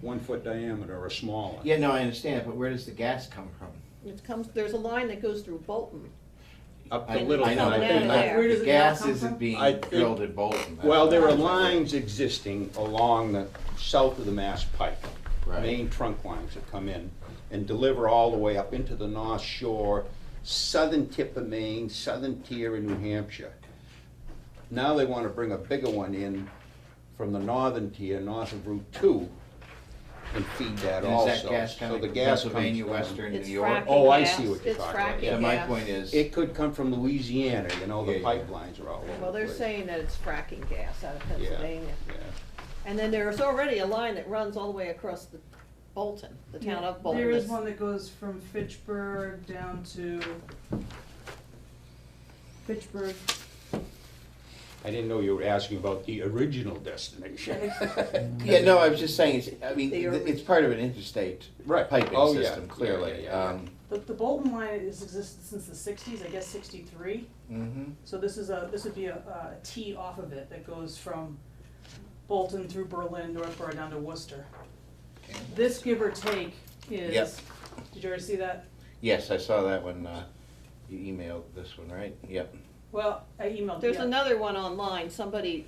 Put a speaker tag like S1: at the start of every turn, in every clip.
S1: one foot diameter or smaller.
S2: Yeah, no, I understand, but where does the gas come from?
S3: It comes, there's a line that goes through Bolton.
S1: Up
S2: I-
S1: to Little
S2: I know,
S3: Coming
S2: but
S3: out of
S2: they're not-
S3: there. Where
S2: The gas isn't
S1: I
S2: being
S1: think-
S2: drilled at Bolton. that's
S1: Well, there
S2: what
S1: are
S2: I'm saying.
S1: lines existing along the south of the Mass Pike.
S2: Right.
S1: Main trunk lines that come in and deliver all the way up into the North Shore, southern tip of Maine, southern tier of New Hampshire. Now they want to bring a bigger one in from the northern tier, north of Route Two, and feed that
S2: And is
S1: also.
S2: that gas
S1: So
S2: coming
S1: the
S2: from
S1: gas comes
S2: Pennsylvania,
S1: down.
S2: Western New
S3: It's
S2: York?
S3: fracking
S1: Oh, I
S3: gas.
S1: see what you're
S3: It's
S1: talking about.
S3: fracking
S1: Yeah,
S2: So my
S3: gas.
S2: point is,
S1: It could come from Louisiana, you know, the
S2: Yeah, yeah.
S1: pipelines are all over the place.
S3: Well, they're saying that it's fracking gas out of
S1: Yeah,
S3: Pennsylvania.
S1: yeah.
S3: And then there is already a line that runs all the way across the Bolton, the town of Bolton.
S4: There is
S3: It's-
S4: one that goes from Fitchburg down to Fitchburg.
S1: I didn't know you were asking about the original destination.
S2: yeah, no, I was just saying, it's, I mean,
S3: They
S2: th-
S3: are-
S2: it's part of an interstate
S1: Right.
S2: piping
S1: Oh, yeah.
S2: system,
S1: Yeah,
S2: clearly.
S1: yeah, yeah, yeah.
S2: Um,
S4: The, the Bolton line has existed since the sixties, I guess sixty-three.
S2: mhm.
S4: So this is a, this would be a, a T off of it that goes from Bolton through Berlin, Northborough down to Worcester. This give or take
S2: Yep.
S4: is, did you already see that?
S2: Yes, I saw that one, uh, you emailed this one, right? Yep.
S4: Well, I emailed,
S3: There's
S4: yeah.
S3: another one online, somebody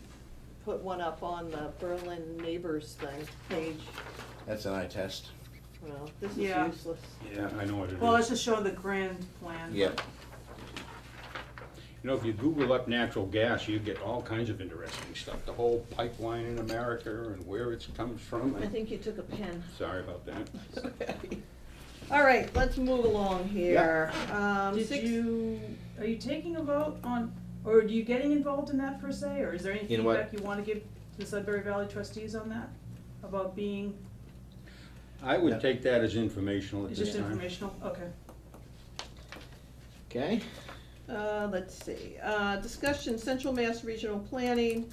S3: put one up on the Berlin Neighbors thing page.
S2: That's an eye test.
S3: Well, this is
S4: Yeah.
S3: useless.
S1: Yeah, I know what it is.
S4: Well, let's just show the grand
S3: Uh-huh.
S4: plan.
S2: Yep.
S1: You know, if you Google up natural gas, you get all kinds of interesting stuff, the whole pipeline in America and where it comes from.
S3: I think you took a pen.
S1: Sorry about that.
S3: All right, let's move along here. Um,
S4: Did
S3: six-
S4: you, are you taking a vote on, or are you getting involved in that per se, or is there any
S2: In what?
S4: feedback you wanna give to the Sudbury Valley trustees on that? About being,
S1: I would take that as informational at
S4: it's
S1: this
S4: just
S1: time.
S4: informational, okay.
S2: Okay.
S3: Uh, let's see, uh, discussion Central Mass Regional Planning,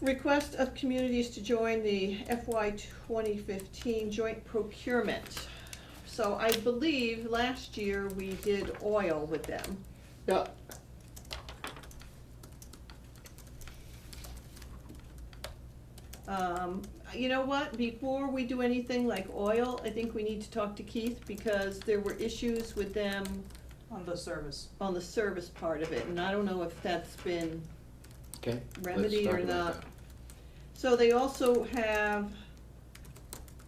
S3: request of communities to join the FY twenty fifteen joint procurement. So I believe last year we did oil with them.
S2: Yeah.
S3: Um, you know what, before we do anything like oil, I think we need to talk to Keith because there were issues with them
S4: On the service.
S3: on the service part of it, and I don't know if that's been
S2: Okay.
S3: remedied or
S2: Let's talk
S3: not.
S2: about that.
S3: So they also have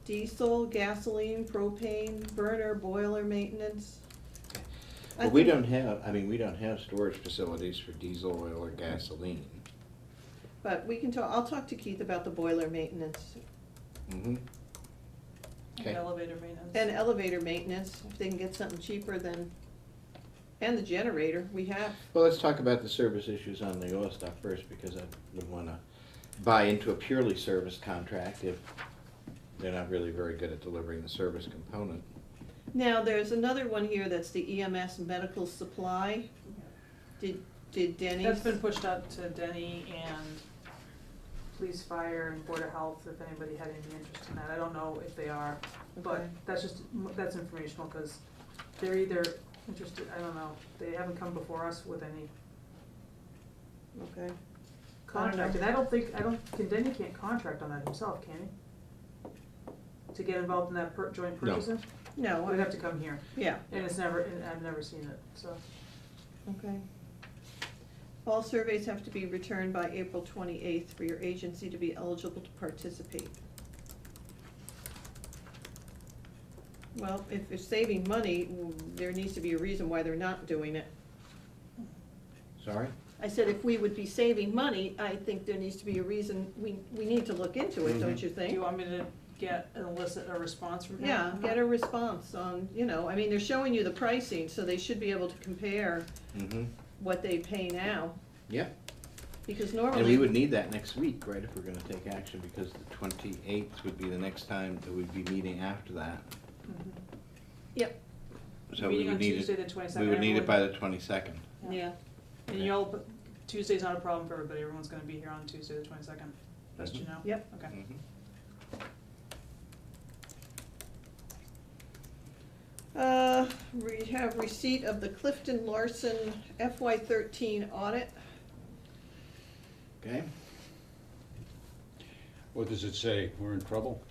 S3: diesel, gasoline, propane, burner, boiler maintenance. I
S2: But we
S3: think-
S2: don't have, I mean, we don't have storage facilities for diesel, oil, or gasoline.
S3: But we can talk, I'll talk to Keith about the boiler maintenance
S2: Mm-hmm.
S4: and
S2: Okay.
S4: Elevator maintenance.
S3: and elevator maintenance, if they can get something cheaper than, and the generator we have.
S2: Well, let's talk about the service issues on the oil stuff first, because I would wanna buy into a purely service contract if they're not really very good at delivering the service component.
S3: Now, there's another one here that's the EMS medical supply. Did, did Denny's?
S4: That's been pushed out to Denny and police, fire, and border health, if anybody had any interest in that, I don't know if they are, but
S3: Okay.
S4: that's just, that's informational, cause they're either interested, I don't know, they haven't come before us with any
S3: Okay.
S4: contract, and I don't think, I don't, can Denny can't contract on that himself, can he? To get involved in that per, joint
S2: No.
S4: purchasing?
S3: No,
S4: We'd
S3: I-
S4: have to come here,
S3: yeah.
S4: and it's never, and I've never seen it, so.
S3: Okay. All surveys have to be returned by April twenty-eighth for your agency to be eligible to participate. Well, if they're saving money, mm, there needs to be a reason why they're not doing it.
S2: Sorry?
S3: I said if we would be saving money, I think there needs to be a reason, we, we need to look into it,
S2: Mm-hmm.
S3: don't you
S4: Do
S3: think?
S4: you want me to get, elicit a response from him?
S3: Yeah, get a response on, you know, I mean, they're showing you the pricing, so they should be able to compare
S2: Mm-hmm.
S3: what they pay now,
S2: Yeah,
S3: because normally.
S2: and we would need that next week, right, if we're gonna take action, because the twenty-eighth would be the next time that we'd be meeting after that.
S4: Mhm.
S3: Yep,
S2: So we
S4: Meeting on
S2: would need
S4: Tuesday,
S2: it,
S4: the
S2: we
S4: 22nd,
S2: would need it by
S4: everyone-
S2: the twenty-second.
S3: yeah.
S4: And you'll, but Tuesday's not a problem for everybody, everyone's gonna be here on Tuesday, the twenty-second, best
S2: Mm-hmm.
S4: you know?
S3: Yep.
S4: Okay.
S3: Uh, we have receipt of the Clifton Larson FY thirteen audit.
S2: Okay?
S1: What does it say? We're in trouble?